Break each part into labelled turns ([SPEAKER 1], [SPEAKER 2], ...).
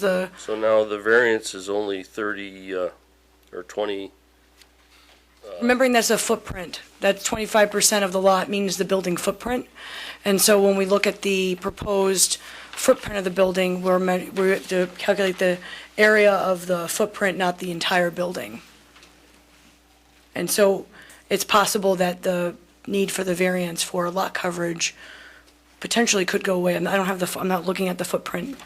[SPEAKER 1] the,
[SPEAKER 2] So now the variance is only thirty, uh, or twenty,
[SPEAKER 1] remembering that's a footprint. That's 25% of the lot means the building footprint. And so when we look at the proposed footprint of the building, we're, me- we have to calculate the area of the footprint, not the entire building. And so it's possible that the need for the variance for lot coverage potentially could go away. And I don't have the, f- I'm not looking at the footprint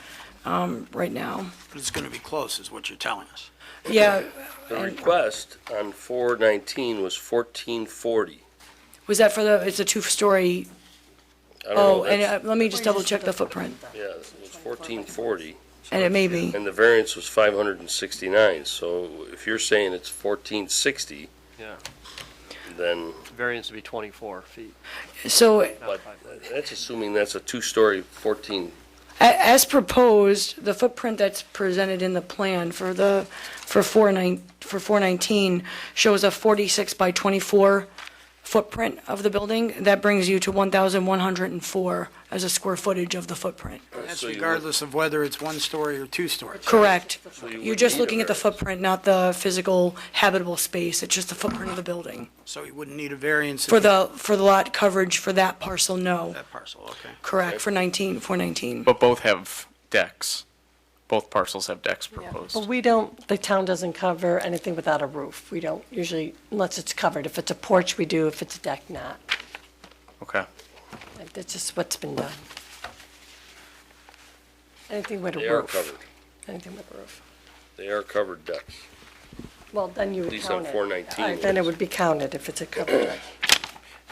[SPEAKER 1] um, right now.
[SPEAKER 3] But it's going to be close, is what you're telling us.
[SPEAKER 1] Yeah,
[SPEAKER 2] the request on four nineteen was fourteen forty.
[SPEAKER 1] was that for the, it's a two-story
[SPEAKER 2] I don't know,
[SPEAKER 1] Oh, and
[SPEAKER 2] that's-
[SPEAKER 1] uh, let me just double check the footprint,
[SPEAKER 2] Yeah, it was fourteen forty,
[SPEAKER 1] and it may be,
[SPEAKER 2] and the variance was five hundred and sixty-nine, so if you're saying it's fourteen sixty.
[SPEAKER 4] Yeah.
[SPEAKER 2] Then,
[SPEAKER 4] Variance would be 24 feet.
[SPEAKER 1] so,
[SPEAKER 4] not
[SPEAKER 2] But-
[SPEAKER 4] five.
[SPEAKER 2] that's assuming that's a two-story fourteen,
[SPEAKER 1] a- as proposed, the footprint that's presented in the plan for the, for four nine, for four nineteen shows a forty-six by twenty-four footprint of the building, that brings you to one thousand one hundred and four as a square footage of the footprint.
[SPEAKER 3] That's
[SPEAKER 2] So you would-
[SPEAKER 3] regardless of whether it's one story or two story.
[SPEAKER 1] Correct.
[SPEAKER 2] you
[SPEAKER 1] You're
[SPEAKER 2] would
[SPEAKER 1] just
[SPEAKER 2] need a
[SPEAKER 1] looking at the
[SPEAKER 2] variance.
[SPEAKER 1] footprint, not the physical habitable space, it's just the footprint of the building.
[SPEAKER 3] So you wouldn't need a variance. if
[SPEAKER 1] For the, for the lot coverage for that parcel, no,
[SPEAKER 3] That parcel, okay.
[SPEAKER 1] correct, for nineteen, four nineteen.
[SPEAKER 5] But both have decks. Both parcels have decks proposed.
[SPEAKER 6] But we don't, the town doesn't cover anything without a roof. We don't usually, unless it's covered. If it's a porch, we do. If it's a deck, not.
[SPEAKER 5] Okay.
[SPEAKER 6] Like, That's just what's been done. Anything with a
[SPEAKER 2] they are
[SPEAKER 6] roof.
[SPEAKER 2] covered,
[SPEAKER 6] Anything with a roof.
[SPEAKER 2] they are covered decks.
[SPEAKER 6] Well, then you would count
[SPEAKER 2] least
[SPEAKER 6] it.
[SPEAKER 2] on 419
[SPEAKER 6] Uh, Then
[SPEAKER 2] it
[SPEAKER 6] it
[SPEAKER 2] is.
[SPEAKER 6] would be counted if it's a covered deck.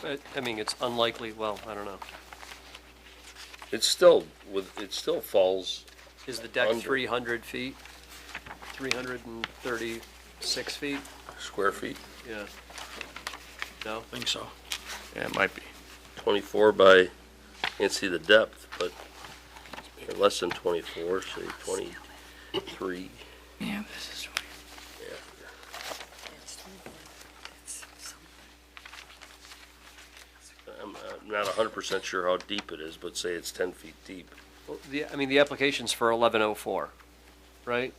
[SPEAKER 4] But, I mean, it's unlikely, well, I don't know.
[SPEAKER 2] It's still, with, it still falls,
[SPEAKER 4] Is the deck
[SPEAKER 2] Under.
[SPEAKER 4] 300 feet? 336 feet?
[SPEAKER 2] square feet,
[SPEAKER 4] Yeah. No?
[SPEAKER 3] I think so.
[SPEAKER 5] Yeah, it might be.
[SPEAKER 2] twenty-four by, can't see the depth, but they're less than twenty-four, say twenty-three.
[SPEAKER 1] Yeah, this is.
[SPEAKER 2] I'm I'm not hundred percent sure how deep it is, but say it's ten feet deep.
[SPEAKER 4] Well, the, I mean, the application's for 1104, right?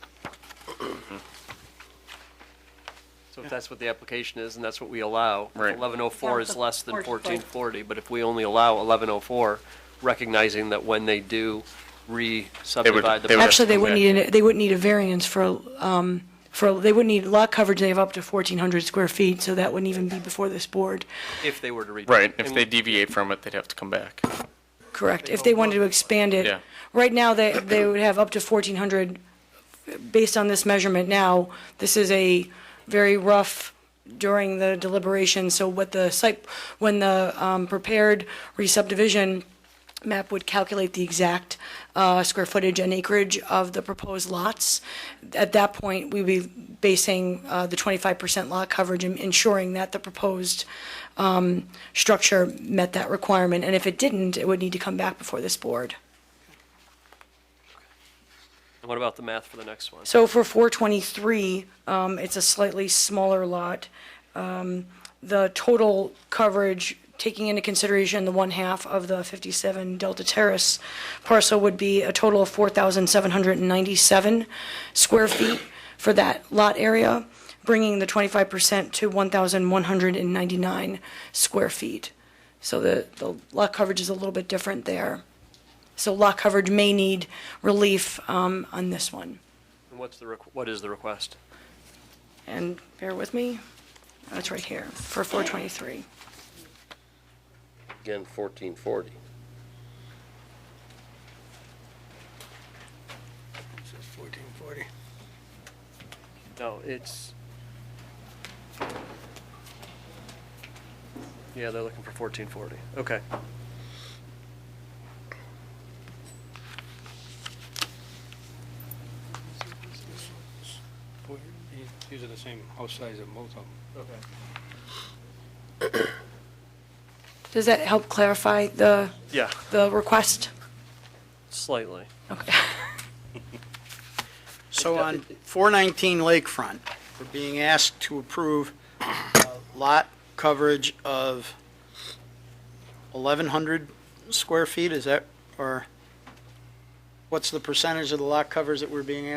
[SPEAKER 4] So if that's what the application is, and that's what we allow. if
[SPEAKER 5] Right.
[SPEAKER 4] 1104 is less than
[SPEAKER 6] Porch foot.
[SPEAKER 4] 1440, but if we only allow 1104, recognizing that when they do re-subdivide the
[SPEAKER 5] they would have
[SPEAKER 1] Actually,
[SPEAKER 5] to
[SPEAKER 1] they
[SPEAKER 5] come
[SPEAKER 1] wouldn't
[SPEAKER 5] back.
[SPEAKER 1] need, an- they wouldn't need a variance for, um, for, they wouldn't need lot coverage, they have up to 1,400 square feet, so that wouldn't even be before this board,
[SPEAKER 4] If they were to redo.
[SPEAKER 5] Right. If
[SPEAKER 4] And
[SPEAKER 5] they deviate from it, they'd have to come back.
[SPEAKER 1] correct? If they wanted to expand it.
[SPEAKER 5] Yeah.
[SPEAKER 1] Right now, they, they would have up to 1,400, based on this measurement now, this is a very rough during the deliberation, so what the site, when the um, prepared re-subdivision map would calculate the exact uh, square footage and acreage of the proposed lots. At that point, we'd be basing uh, the 25% lot coverage and ensuring that the proposed um, structure met that requirement. And if it didn't, it would need to come back before this board.
[SPEAKER 4] what about the math for the next one?
[SPEAKER 1] So for 423, um, it's a slightly smaller lot. Um, The total coverage, taking into consideration the one-half of the 57 Delta Terrace parcel, would be a total of 4,797 square feet for that lot area, bringing the 25% to 1,199 square feet. So the the lot coverage is a little bit different there. So lot coverage may need relief um, on this one.
[SPEAKER 4] And what's the, requ- what is the request?
[SPEAKER 1] and bear with me, that's right here, for 423.
[SPEAKER 2] Again, fourteen forty.
[SPEAKER 3] Fourteen forty.
[SPEAKER 4] No, it's. Yeah, they're looking for fourteen forty. Okay.
[SPEAKER 7] These are the same house size at both of them.
[SPEAKER 4] Okay.
[SPEAKER 1] Does that help clarify the,
[SPEAKER 4] Yeah,
[SPEAKER 1] the request?
[SPEAKER 4] slightly.
[SPEAKER 1] Okay.
[SPEAKER 3] So on 419 Lakefront, we're being asked to approve uh, lot coverage of 1,100 square feet, is that, or what's the percentage of the lot covers that we're being asked